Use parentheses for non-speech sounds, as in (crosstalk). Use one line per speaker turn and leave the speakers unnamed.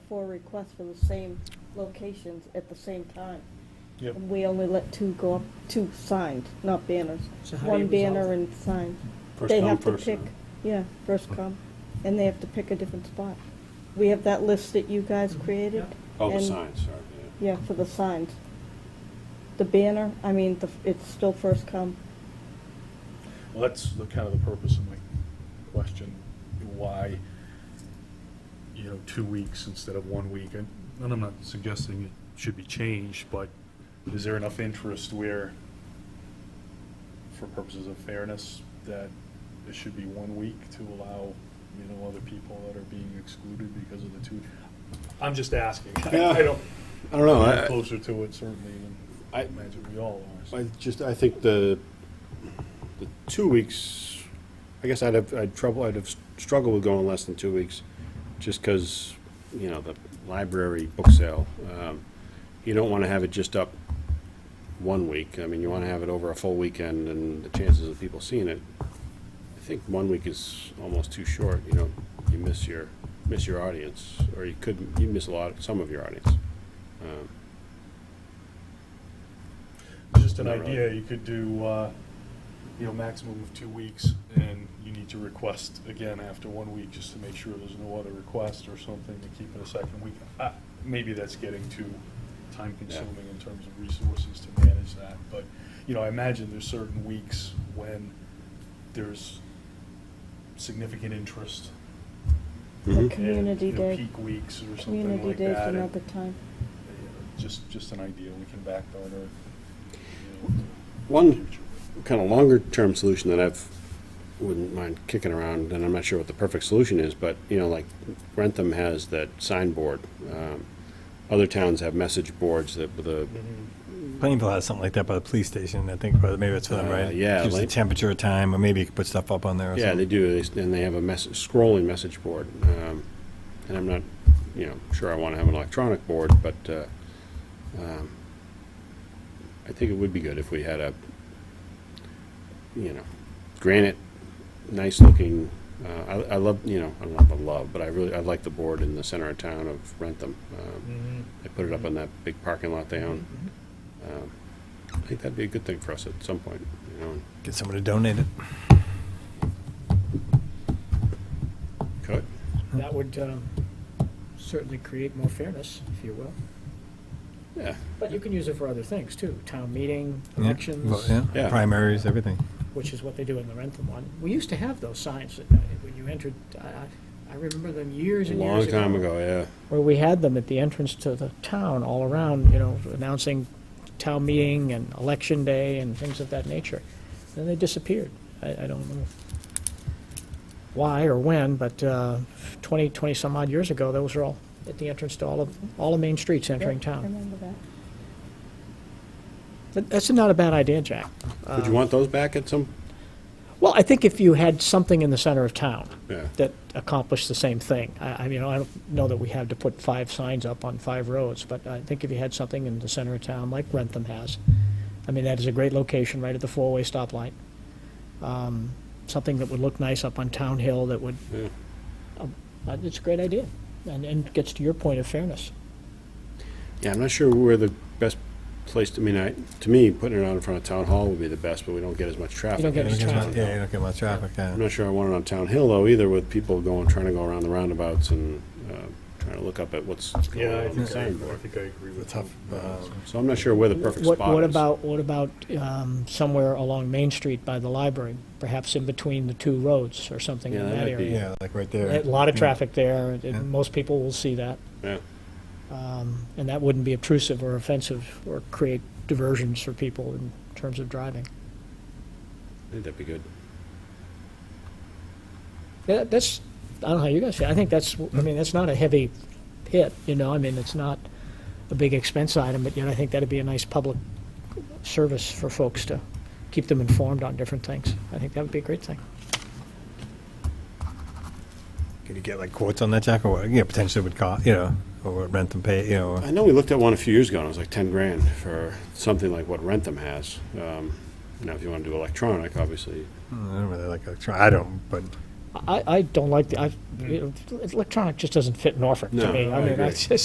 four requests for the same locations at the same time.
Yep.
And we only let two go up, two signed, not banners.
So how do you
One
resolve
banner
it?
and sign.
First
They
come,
have to
first
pick,
served.
yeah, first come, and they have to pick a different spot. We have that list that you guys
Mhm.
created.
Yep.
Oh, the
and-
signs, sorry, yeah.
Yeah, for the signs. The banner, I mean, the, it's still first come.
Well, that's the kind of the purpose of my question, why, you know, two weeks instead of one week? And and I'm not suggesting it should be changed, but is there enough interest where, for purposes of fairness, that it should be one week to allow, you know, other people that are being excluded because of the two? I'm just asking. (laughs) I- I
Yeah.
don't,
I don't know,
I'm
I-
closer to it certainly than I
I-
imagine we all are. so.
I just, I think the, the two weeks, I guess I'd have, I'd trouble, I'd have struggled with going less than two weeks, just because, you know, the library book sale, um, you don't want to have it just up one week. I mean, you want to have it over a full weekend, and the chances of people seeing it, I think one week is almost too short, you know, you miss your, miss your audience, or you could, you miss a lot, some of your audience. Um,
Just an
Not really.
idea, you could do, uh, you know, maximum of two weeks, and you need to request again after one week, just to make sure there's no other request or something, to keep it a second week. Uh, Maybe that's getting too time-consuming in terms of resources to manage that, but, you know, I imagine there's certain weeks when there's significant interest.
The
mhm.
community
and, you know,
day,
Peak weeks or something
community
like
day's
that. and,
another time.
uh, Just, just an idea, we can back burner. you know,
One
future.
kind of longer term solution that I've wouldn't mind kicking around, and I'm not sure what the perfect solution is, but you know, like Rentham has that signboard. Um, other towns have message boards that with a
Plainville has something like that by the police station, I think, or maybe it's for them,
Uh,
right?
yeah,
Gives the
like-
temperature, time, or maybe you could put stuff up on there or
yeah they
something.
do, they, s- and they have a message scrolling message board. Um, and I'm not you know sure I want to have an electronic board, but uh, um, I think it would be good if we had a you know granite nice looking. Uh, I, I love, you know, I don't know if I love, but I really, I like the board in the center of town of Rentham. Um, they put it up on that big parking lot they own.
Mm-hmm.
Um, I think that'd be a good thing for us at some point, you know, and
Get someone to donate it.
could.
That would um, certainly create more fairness, if you will.
Yeah,
But you can use it for other things, too. Town meeting,
Yeah,
elections,
vote, yeah,
Yeah.
primaries, everything.
which is what they do in the Rentham one. We used to have those signs that, uh, when you entered, I- I I remember them years
a
and
long
years ago.
time ago, yeah.
Where we had them at the entrance to the town, all around, you know, announcing town meeting and election day and things of that nature. Then they disappeared. I I don't know why or when, but uh, 20, 20-some odd years ago, those were all at the entrance to all of, all the main streets entering
Yep, I
town.
remember that.
But That's not a bad idea, Jack. Uh,
Would you want those back at some,
Well, I think if you had something in the center of town
yeah,
that accomplished the same thing, I, I mean, I don't know that we have to put five signs up on five roads, but I think if you had something in the center of town, like Rentham has, I mean, that is a great location, right at the four-way stoplight. Um, Something that would look nice up on Town Hill that would,
yeah.
uh, it's a great idea, and, and gets to your point of fairness.
Yeah, I'm not sure where the best place, to I mean, I, to me, putting it out in front of Town Hall would be the best, but we don't get as much traffic.
get
You
as
don't get
traffic.
much- Yeah, you don't get much traffic, yeah.
I'm not sure I want it on Town Hill though either, with people going, trying to go around the roundabouts and, uh, trying to look up at what's going on on the signboard.
think I agree
It's tough,
uh,
um,
So I'm not sure where the perfect
What-
spot is.
What about, what about um, somewhere along Main Street by the library, perhaps in between the two roads or something
Yeah,
in
that
that
might be-
area?
Yeah, like right
A
there.
lot of
Yeah.
traffic there, and
Yeah.
most people will see that,
Yeah,
um, and that wouldn't be obtrusive or offensive or create diversions for people in terms of driving.
I think that'd be good.
Yeah, That's, I don't know how you guys feel, I think that's, I mean, that's not a heavy hit, you know, I mean, it's not a big expense item, but yet I think that'd be a nice public service for folks to keep them informed on different things. I think that would be a great thing.
Could you get like quotes on that, Jack, or, what? yeah, potentially would cost, you know, or what rent and pay, you know, or-
I know we looked at one a few years ago, and it was like ten grand for something like what Rentham has. Um, Now, if you want to do electronic, obviously,
I don't really like electronic, I don't, but
I, I don't like, the I, you know, electronic just doesn't fit Norfolk
No,
to me.
I
I mean,
agree.
I just,